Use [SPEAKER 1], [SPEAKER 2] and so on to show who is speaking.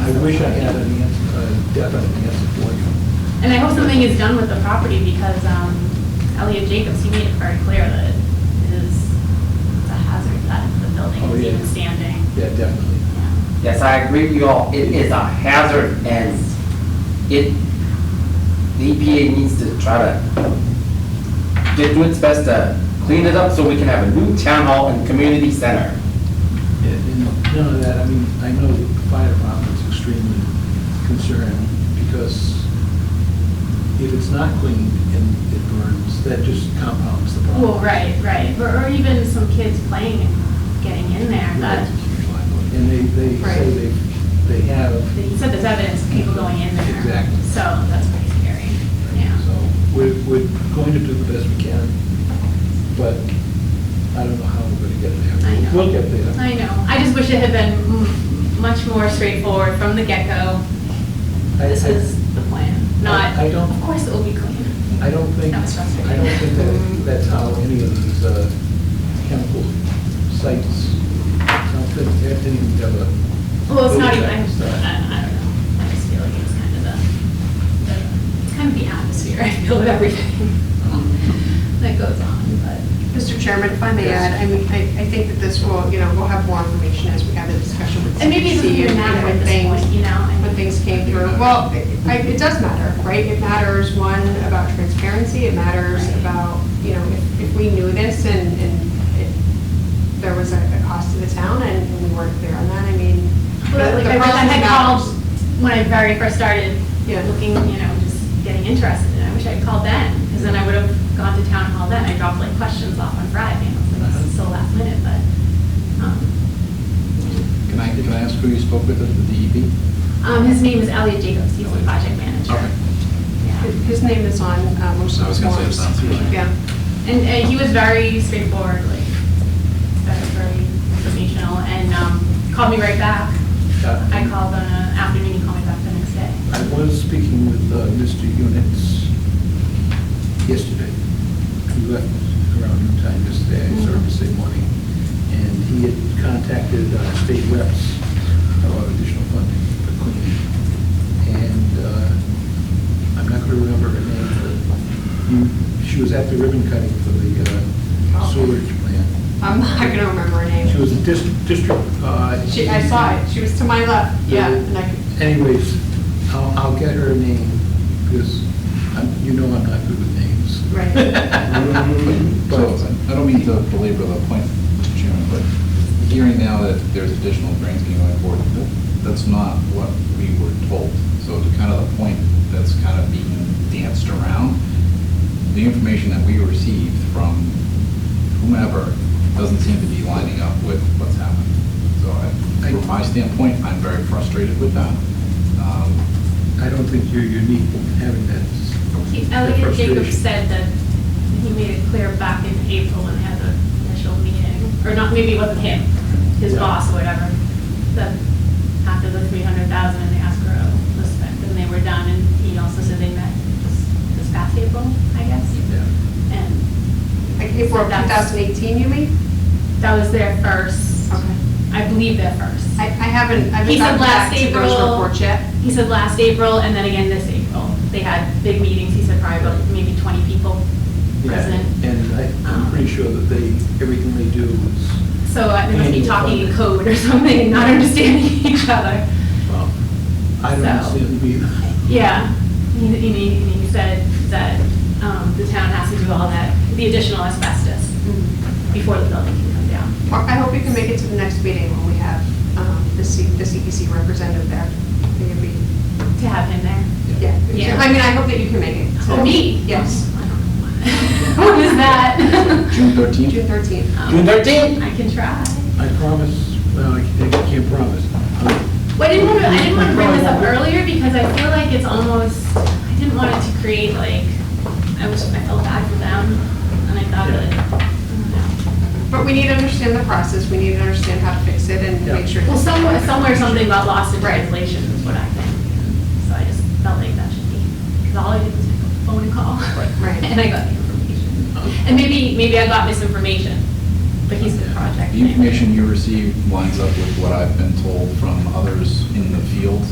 [SPEAKER 1] I wish I had an answer, a definite answer for you.
[SPEAKER 2] And I hope something is done with the property because um, Elliot Jacobs, he made it very clear that it is it's a hazard that the building
[SPEAKER 1] Oh,
[SPEAKER 2] is
[SPEAKER 1] yeah.
[SPEAKER 2] even standing.
[SPEAKER 1] Yeah, definitely.
[SPEAKER 2] Yeah.
[SPEAKER 3] Yes, I agree with you all, it is a hazard and it, the EPA needs to try to get, do its best to clean it up so we can have a new town hall and community center.
[SPEAKER 1] And and none of that, I mean, I know the fire department's extremely concerned because if it's not cleaned and it burns, that just compounds the problem.
[SPEAKER 2] Well, right, right. Or or even some kids playing and getting in there. That,
[SPEAKER 1] And they, they say
[SPEAKER 2] Right.
[SPEAKER 1] they, they have,
[SPEAKER 2] he said there's evidence of people going in there.
[SPEAKER 1] Exactly.
[SPEAKER 2] So that's pretty scary. Yeah.
[SPEAKER 1] so we're, we're going to do the best we can, but I don't know how we're gonna get there.
[SPEAKER 2] I know.
[SPEAKER 1] We'll get there.
[SPEAKER 2] I know. I just wish it had been m- much more straightforward from the get-go.
[SPEAKER 1] I-
[SPEAKER 2] This
[SPEAKER 1] I-
[SPEAKER 2] is the plan, not,
[SPEAKER 1] I don't-
[SPEAKER 2] of course it will be clean.
[SPEAKER 1] I don't think,
[SPEAKER 2] That was frustrating.
[SPEAKER 1] I don't think that that's how any of these uh, chemical sites, I don't think anything's ever.
[SPEAKER 2] Well, it's not even, I, I
[SPEAKER 1] Okay.
[SPEAKER 2] I don't know. I just feel like it's kind of the, the, it's kind of the atmosphere, I feel, of everything that goes on, but.
[SPEAKER 4] Mr. Chairman, if I may add, I mean, I, I think that this will, you know, we'll have more information as we have the discussion with CDC.
[SPEAKER 2] And maybe it doesn't even
[SPEAKER 4] and
[SPEAKER 2] matter
[SPEAKER 4] when
[SPEAKER 2] at this
[SPEAKER 4] things-
[SPEAKER 2] point, you know? I
[SPEAKER 4] When
[SPEAKER 2] mean-
[SPEAKER 4] things came through. Well, it- I, it does matter, right? It matters, one, about transparency, it matters
[SPEAKER 2] Right.
[SPEAKER 4] about, you know, if, if we knew this and, and it- there was a a cost to the town and and we weren't clear on that, I mean.
[SPEAKER 2] But
[SPEAKER 4] the-
[SPEAKER 2] like,
[SPEAKER 4] the
[SPEAKER 2] I wish I
[SPEAKER 4] process
[SPEAKER 2] had
[SPEAKER 4] matters.
[SPEAKER 2] called when I very first started
[SPEAKER 4] Yeah.
[SPEAKER 2] looking, you know, just getting interested, and I wish I'd called then, because then I would have gone to town hall then, I dropped like questions off on Friday, and I was like, this is so last minute, but, um,
[SPEAKER 1] Can I, can I ask who you spoke with at the E DEP?
[SPEAKER 2] um, his name is Elliot Jacobs, he's the project manager. Yeah.
[SPEAKER 4] His name is on uh, most of
[SPEAKER 5] I was
[SPEAKER 4] the
[SPEAKER 5] gonna say it
[SPEAKER 4] forms.
[SPEAKER 5] sounds familiar.
[SPEAKER 4] Yeah.
[SPEAKER 2] And uh, he was very straightforward, like, very, very informational, and um, called me right back. I called on an afternoon, he called me back the next day.
[SPEAKER 1] I was speaking with uh, Mr. Units yesterday. He left around noon time yesterday, I
[SPEAKER 4] Mm-hmm.
[SPEAKER 1] saw him yesterday morning. And he had contacted uh, state reps about additional funding for cleaning. And uh, I'm not going to remember her name, but you- she was at the ribbon cutting for the uh,
[SPEAKER 4] Oh,
[SPEAKER 1] sewerage plant.
[SPEAKER 4] I'm not gonna remember her name.
[SPEAKER 1] She was a dis- district. uh,
[SPEAKER 4] She, I saw it, she was to my left, yeah, and I could,
[SPEAKER 1] Anyways, I'll, I'll get her name, because I'm, you know I'm not good with names.
[SPEAKER 5] So, I don't mean to belabor the point, Mr. Chairman, but hearing now that there's additional grants being going forward, that- that's not what we were told. So to kind of the point that's kind of being danced around, the information that we received from whomever doesn't seem to be lining up with what's happening. So I, from my standpoint, I'm very frustrated with that. Um,
[SPEAKER 1] I don't think you're unique in having that.
[SPEAKER 2] He-
[SPEAKER 1] The
[SPEAKER 2] Elliot
[SPEAKER 1] frustration.
[SPEAKER 2] Jacobs said that he made it clear back in April when they had the initial meeting, or not, maybe it wasn't him, his
[SPEAKER 1] Yeah.
[SPEAKER 2] boss or whatever, that after the three hundred thousand and the escrow was spent, and they were done, and he also said they met this- this past April, I guess, and
[SPEAKER 4] like April
[SPEAKER 2] That's-
[SPEAKER 4] 2018, you mean?
[SPEAKER 2] That was their first,
[SPEAKER 4] Okay.
[SPEAKER 2] I believe their first.
[SPEAKER 4] I, I haven't, I
[SPEAKER 2] He
[SPEAKER 4] haven't
[SPEAKER 2] said
[SPEAKER 4] gotten back
[SPEAKER 2] last
[SPEAKER 4] to those
[SPEAKER 2] April.
[SPEAKER 4] reports yet.
[SPEAKER 2] He said last April and then again this April. They had big meetings, he said probably about maybe 20 people present. Um,
[SPEAKER 1] And I- I'm pretty sure that they, everything they do is,
[SPEAKER 2] So uh, they must be
[SPEAKER 1] And-
[SPEAKER 2] talking in code or something and not understanding each other.
[SPEAKER 1] well, I don't
[SPEAKER 2] So-
[SPEAKER 1] understand being.
[SPEAKER 2] Yeah, and he, and he- and he said that um, the town has to do all that, the additional asbestos before the building can come down.
[SPEAKER 4] Mark, I hope you can make it to the next meeting when we have um, the C- the CEC representative there. I think it'd be-
[SPEAKER 2] To have him there. Yeah.
[SPEAKER 4] Yeah, I mean, I hope that you can make it.
[SPEAKER 2] To me?
[SPEAKER 4] Yes.
[SPEAKER 2] I don't know why. What is that?
[SPEAKER 5] June 13th?
[SPEAKER 4] June 13th.
[SPEAKER 2] Um,
[SPEAKER 3] June 13th?
[SPEAKER 2] I can try.
[SPEAKER 1] I promise, well, I can't- I can't promise.
[SPEAKER 2] Well, I didn't want to, I didn't want to bring this up earlier because I feel like it's almost, I didn't want it to create like, I was, I felt bad for them and I thought that, I
[SPEAKER 4] But we need to understand the process, we need to understand how to fix it and
[SPEAKER 1] Yeah.
[SPEAKER 4] make sure.
[SPEAKER 2] don't know. Well, somewhere, somewhere something got lost in translation is what I think. So I just felt like that should be, because all I did was pick up the phone and call.
[SPEAKER 4] Right.
[SPEAKER 2] And I got the information. And maybe, maybe I got misinformation, but he's the project
[SPEAKER 5] The
[SPEAKER 2] manager.
[SPEAKER 5] information you received lines up with what I've been told from others in the field